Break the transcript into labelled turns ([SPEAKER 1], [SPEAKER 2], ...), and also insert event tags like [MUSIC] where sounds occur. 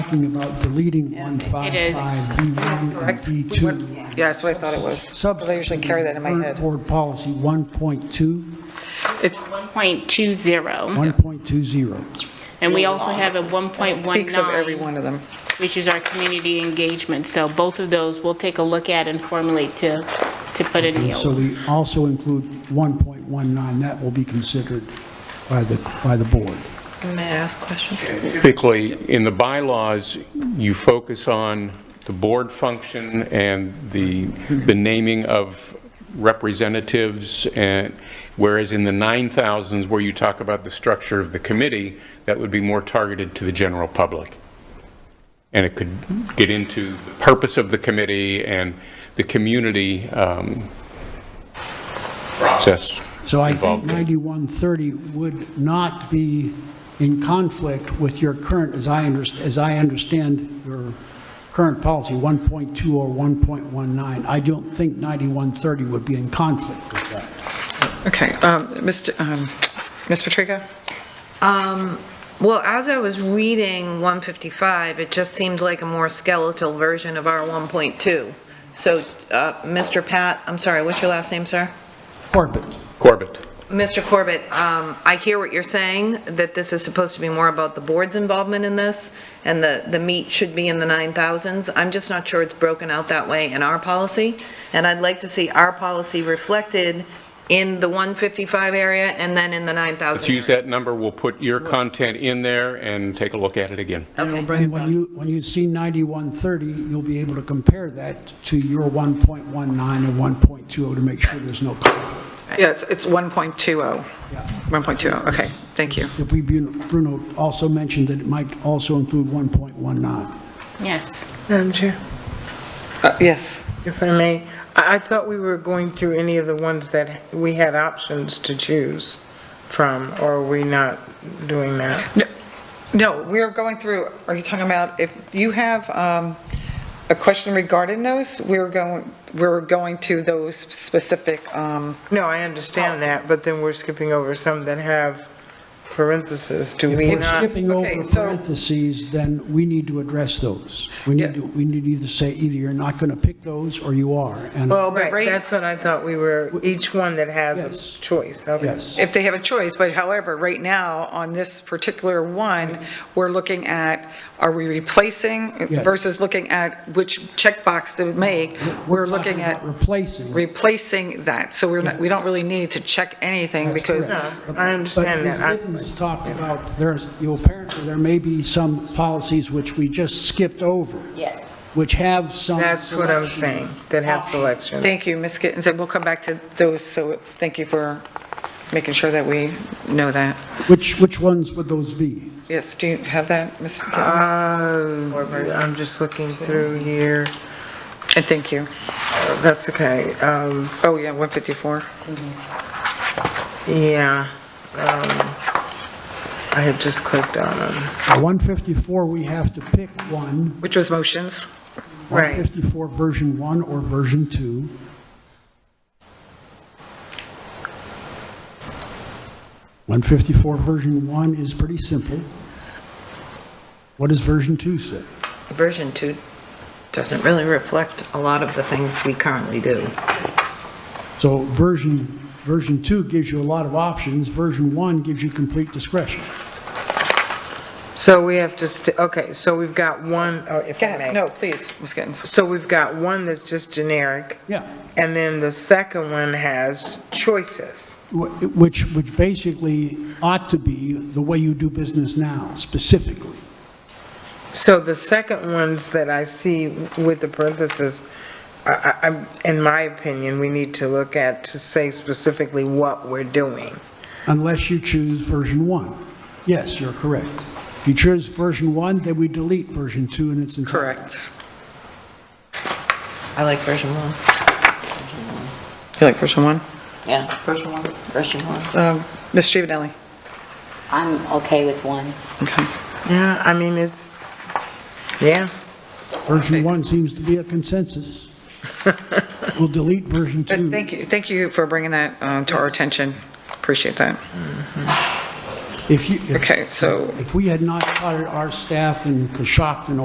[SPEAKER 1] talking about deleting
[SPEAKER 2] is.
[SPEAKER 1] 155B1 and
[SPEAKER 3] Correct?
[SPEAKER 1] B2.
[SPEAKER 3] Yeah, that's what I thought it was.
[SPEAKER 1] Sub.
[SPEAKER 3] But I usually carry that in my
[SPEAKER 1] current
[SPEAKER 3] head.
[SPEAKER 1] Board policy 1.2,
[SPEAKER 3] It's,
[SPEAKER 2] 1.20,
[SPEAKER 1] 1.20.
[SPEAKER 2] and we also have a
[SPEAKER 3] speaks of every
[SPEAKER 2] 1.19,
[SPEAKER 3] one of them.
[SPEAKER 2] which is our community engagement. So both of those we'll take a look at and formulate to, to put in
[SPEAKER 1] And
[SPEAKER 2] the
[SPEAKER 1] so
[SPEAKER 2] old.
[SPEAKER 1] we also include 1.19, that will be considered by the, by the board.
[SPEAKER 4] May I ask a question?
[SPEAKER 5] Typically, in the bylaws, you focus on the board function and the, the naming of representatives, and, whereas in the 9,000s, where you talk about the structure of the committee, that would be more targeted to the general public. And it could get into the purpose of the committee and the community um, process
[SPEAKER 1] So I think
[SPEAKER 5] involved in it.
[SPEAKER 1] 9130 would not be in conflict with your current, as I underst, as I understand your current policy, 1.2 or 1.19. I don't think 9130 would be in conflict with that.
[SPEAKER 3] Okay, um, Mr., um, Ms. Patrica?
[SPEAKER 4] Um, Well, as I was reading 155, it just seemed like a more skeletal version of our 1.2. So, uh, Mr. Pat, I'm sorry, what's your last name, sir?
[SPEAKER 1] Corbett,
[SPEAKER 5] Corbett.
[SPEAKER 4] Mr. Corbett, um, I hear what you're saying, that this is supposed to be more about the board's involvement in this, and the, the meat should be in the 9,000s. I'm just not sure it's broken out that way in our policy, and I'd like to see our policy reflected in the 155 area and then in the 9,000.
[SPEAKER 5] Let's use that number, we'll put your content in there and take a look at it again.
[SPEAKER 1] and when you, when you see 9130, you'll be able to compare that to your 1.19 and 1.20 to make sure there's no conflict.
[SPEAKER 3] Yeah, it's, it's
[SPEAKER 5] oh.
[SPEAKER 3] 1.20.
[SPEAKER 1] Yeah.
[SPEAKER 3] 1.20, okay, thank you.
[SPEAKER 1] If we, Bruno also mentioned that it might also include 1.19.
[SPEAKER 2] Yes.
[SPEAKER 6] Madam Chair,
[SPEAKER 3] Uh, Yes.
[SPEAKER 6] if I may, I I thought we were going through any of the ones that we had options to choose from, or are we not doing that?
[SPEAKER 3] No- No, we are going through, are you talking about, if you have um, a question regarding those, we're going, we're going to those specific, um,
[SPEAKER 6] No, I understand that, but then we're skipping over some that have parentheses. Do we
[SPEAKER 1] If we're
[SPEAKER 6] not?
[SPEAKER 1] skipping over
[SPEAKER 3] okay, so-
[SPEAKER 1] parentheses, then we need to address those. We need to, we need to either say, either you're not going to pick those, or you are. And
[SPEAKER 6] Well, but
[SPEAKER 3] Right.
[SPEAKER 6] that's what I thought we were, each one that has
[SPEAKER 1] Yes.
[SPEAKER 6] a choice, okay.
[SPEAKER 1] Yes.
[SPEAKER 5] if they have a choice, but however, right now, on this particular one, we're looking at, are we replacing
[SPEAKER 1] Yes.
[SPEAKER 5] versus looking at which checkbox to make? We're
[SPEAKER 1] talking
[SPEAKER 5] looking at
[SPEAKER 1] about Replacing.
[SPEAKER 5] replacing that, so we're not, we don't really need to check anything because
[SPEAKER 6] No, I understand that. I-
[SPEAKER 1] But Ms. Gittens talked about, there's, you know, apparently, there may be some policies which we just skipped over.
[SPEAKER 2] Yes.
[SPEAKER 1] Which have some.
[SPEAKER 6] That's what I'm
[SPEAKER 1] selection.
[SPEAKER 6] saying, that have selections.
[SPEAKER 3] thank you, Ms. Gittens, and we'll come back to those, so thank you for making sure that we know that.
[SPEAKER 1] Which, which ones would those be?
[SPEAKER 3] Yes, do you have that, Ms. Gittens?
[SPEAKER 6] Uh, I'm just looking through here.
[SPEAKER 3] And thank you.
[SPEAKER 6] That's okay. Um,
[SPEAKER 3] Oh, yeah, 154.
[SPEAKER 6] Yeah, um, I had just clicked on them.
[SPEAKER 1] Uh, 154, we have to pick one.
[SPEAKER 3] Which was motions.
[SPEAKER 6] Right,
[SPEAKER 1] 154 version 1 or version 2. One fifty-four version one is pretty simple. What does version two say?
[SPEAKER 4] Version 2 doesn't really reflect a lot of the things we currently do.
[SPEAKER 1] So version, version two gives you a lot of options, version one gives you complete discretion.
[SPEAKER 6] so we have to, st- okay, so we've got one, oh, if
[SPEAKER 3] Go
[SPEAKER 6] I
[SPEAKER 3] ahead,
[SPEAKER 6] may.
[SPEAKER 3] no, please, Ms. Gittens.
[SPEAKER 6] So we've got one that's just generic,
[SPEAKER 1] Yeah,
[SPEAKER 6] and then the second one has choices.
[SPEAKER 1] Wh- which, which basically ought to be the way you do business now, specifically.
[SPEAKER 6] So the second ones that I see with the parentheses, I, I, I'm- in my opinion, we need to look at to say specifically what we're doing.
[SPEAKER 1] unless you choose version one. Yes, you're correct. If you choose version one, then we delete version two in its entirety.
[SPEAKER 3] Correct.
[SPEAKER 7] I like version one.
[SPEAKER 3] You like version one?
[SPEAKER 7] Yeah, version one, version one.
[SPEAKER 3] Um, Ms. Giovanelli?
[SPEAKER 8] I'm okay with one.
[SPEAKER 3] Okay.
[SPEAKER 6] Yeah, I mean, it's, yeah.
[SPEAKER 1] Version one seems to be a
[SPEAKER 3] [LAUGHS]
[SPEAKER 1] consensus. We'll delete version
[SPEAKER 3] But
[SPEAKER 1] two.
[SPEAKER 3] thank you, thank you for bringing that um, to our attention. Appreciate that.
[SPEAKER 1] If you, if-
[SPEAKER 3] Okay, so
[SPEAKER 1] if we had not taught our staff in Coshocton